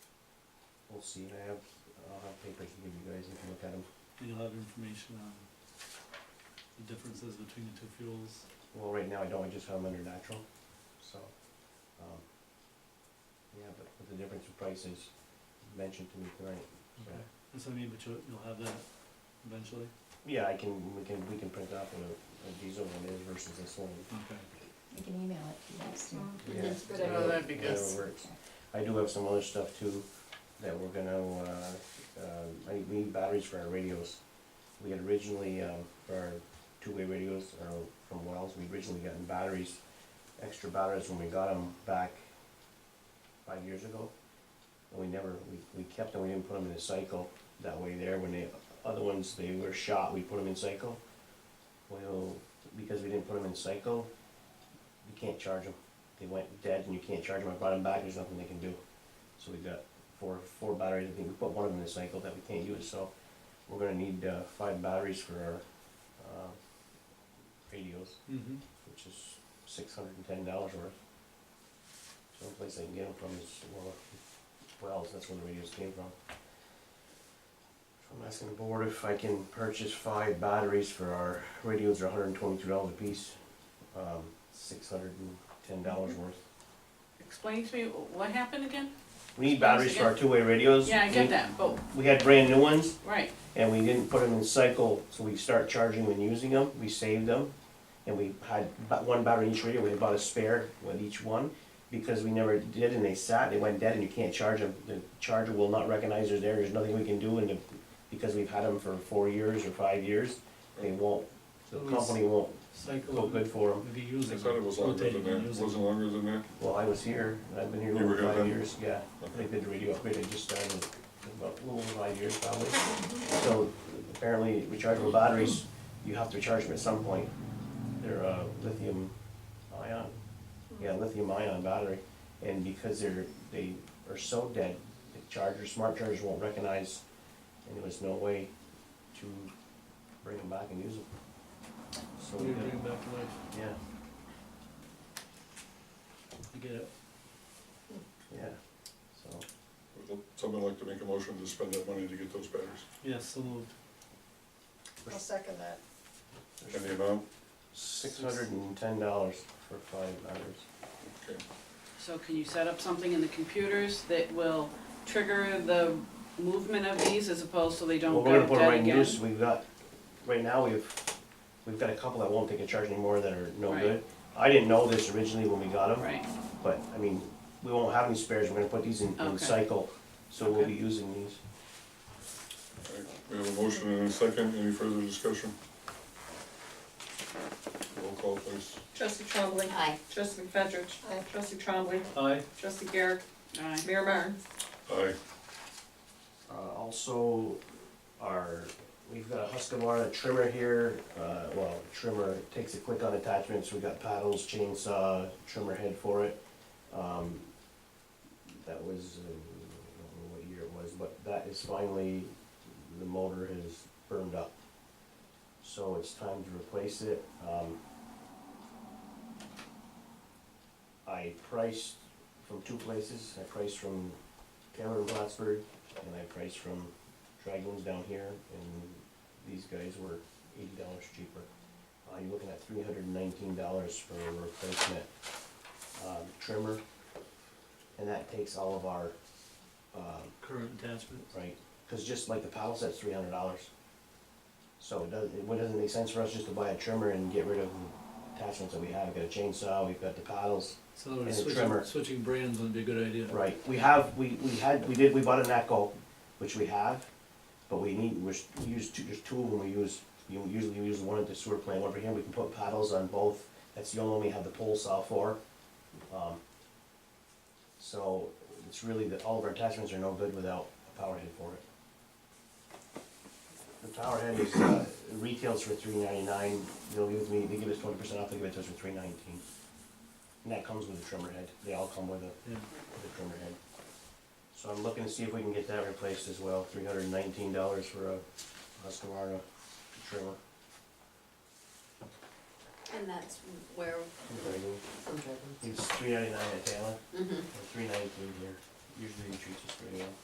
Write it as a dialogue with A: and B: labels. A: we'll see, I have, I'll have paper I can give you guys, you can look at them.
B: And you'll have information on the differences between the two fuels.
A: Well, right now I don't, I just have them under natural, so, um, yeah, but, but the difference in price is mentioned to me tonight.
B: Okay. That's what I mean, but you'll, you'll have that eventually?
A: Yeah, I can, we can, we can print out what a, a diesel one is versus this one.
B: Okay.
C: You can email it to us, too.
A: Yeah,
D: That's a good
A: so
D: idea.
E: that'd be good.
A: whatever works. I do have some other stuff too, that we're gonna, uh, uh, I, we need batteries for our radios. We had originally, um, for our two-way radios, uh, from Wells, we originally gotten batteries, extra batteries when we got them back five years ago. And we never, we, we kept them, we didn't put them in a cycle, that way there, when the other ones, they were shot, we put them in cycle. Well, because we didn't put them in cycle, we can't charge them they went dead and you can't charge them, I brought them back, there's nothing they can do. So we've got four, four batteries, I think we put one of them in the cycle that we can't use, so we're gonna need, uh, five batteries for our, uh, radios,
B: Mm-hmm.
A: which is six hundred and ten dollars worth. So the place I can get them from is, well, Wells, that's where the radios came from. So I'm asking the board if I can purchase five batteries for our radios, are hundred and twenty-two dollars a piece, um, six hundred and ten dollars worth.
E: Explain to me wh- what happened again?
A: We need batteries for our two-way radios.
E: Yeah, I
A: We-
E: get that, but,
A: We had brand new ones,
E: right,
A: and we didn't put them in cycle, so we start charging and using them, we saved them. And we had ba- one battery in each radio, we had bought a spare with each one, because we never did, and they sat, they went dead, and you can't charge them. The charger will not recognize they're there, there's nothing we can do, and the- because we've had them for four years or five years, they won't, the
B: So it's-
A: company won't
B: Cycle,
A: feel
B: would
A: good for them.
B: be using.
F: I thought it was longer
B: rotating
F: than
B: and
F: that,
B: using.
F: wasn't longer than that?
A: Well, I was here, and I've been here
F: You were
A: over
F: here
A: five
F: then?
A: years, yeah. They
F: Okay.
A: did the radio upgrade, I just started about a little over five years probably. So apparently rechargeable batteries, you have to charge them at some point. They're uh, lithium ion, yeah, lithium ion battery. And because they're, they are so dead, the chargers, smart chargers won't recognize, and there was no way to bring them back and use them. So,
B: We
A: we
B: need to
A: got-
B: bring it back to life,
A: yeah,
B: I get it.
A: yeah, so.
F: Would Someone like to make a motion to spend that money to get those batteries?
B: Yes, so moved.
D: I'll second that.
F: And the amount?
A: Six hundred and ten dollars for five hours.
F: Okay.
E: so can you set up something in the computers that will trigger the movement of these as opposed to they
A: Well, we're
E: don't go
A: gonna put it right
E: dead
A: in
E: again?
A: use, we've got, right now, we've, we've got a couple that won't take a charge anymore that are no
E: Right.
A: good. I didn't know this originally when we got them,
E: Right,
A: but, I mean, we won't have any spares, we're gonna put these in, in
E: Okay.
A: cycle, so we'll
E: Okay.
A: be using these.
F: All right, We have a motion and a second, any further discussion? Roll call please.
G: Trustee Trombley.
C: Aye.
G: Trustee McFetrich.
D: Aye.
G: uh, Trustee Trombley.
B: Aye,
G: Trustee Garrett.
E: aye.
G: Mayor Martin.
F: Aye.
A: Uh, also, our, we've got a Husqvarna trimmer here, uh, well, trimmer, takes it quick on attachments, we got paddles, chainsaw, trimmer head for it. Um, that was, uh, I don't know what year it was, but that is finally, the motor has burned up. So it's time to replace it, um. I priced from two places, I priced from Taylor and Plattsburgh, and I priced from Dragoons down here, and these guys were eighty dollars cheaper. Uh, you're looking at three hundred and nineteen dollars for a replacement, um, trimmer, and that takes all of our, um,
B: current attachments.
A: right? Cause just like the paddle set's three hundred dollars. So it doesn't, it what doesn't make sense for us just to buy a trimmer and get rid of the attachments that we have, we've got a chainsaw, we've got the paddles.
B: So we're
A: And a
B: switching,
A: trimmer.
B: switching brands would be a good idea.
A: Right, we have, we, we had, we did, we bought an Echo, which we have, but we need, we're, s- we use two, there's two of them we use. You usually we use one at the sewer plant, over here we can put paddles on both, that's the only one we have the pole saw for. Um, So, it's really that all of our attachments are no good without a power head for it. The power head is, uh, retails for three ninety-nine, they'll give me, they give us twenty percent off, they give it to us for three nineteen. And that comes with a trimmer head, they all come with a
B: Yeah,
A: the trimmer head. So I'm looking to see if we can get that replaced as well, three hundred and nineteen dollars for a Husqvarna trimmer.
C: And that's where, it's
G: Mm-hmm.
A: It's three ninety-nine at Taylor, or three nineteen here, usually it treats us pretty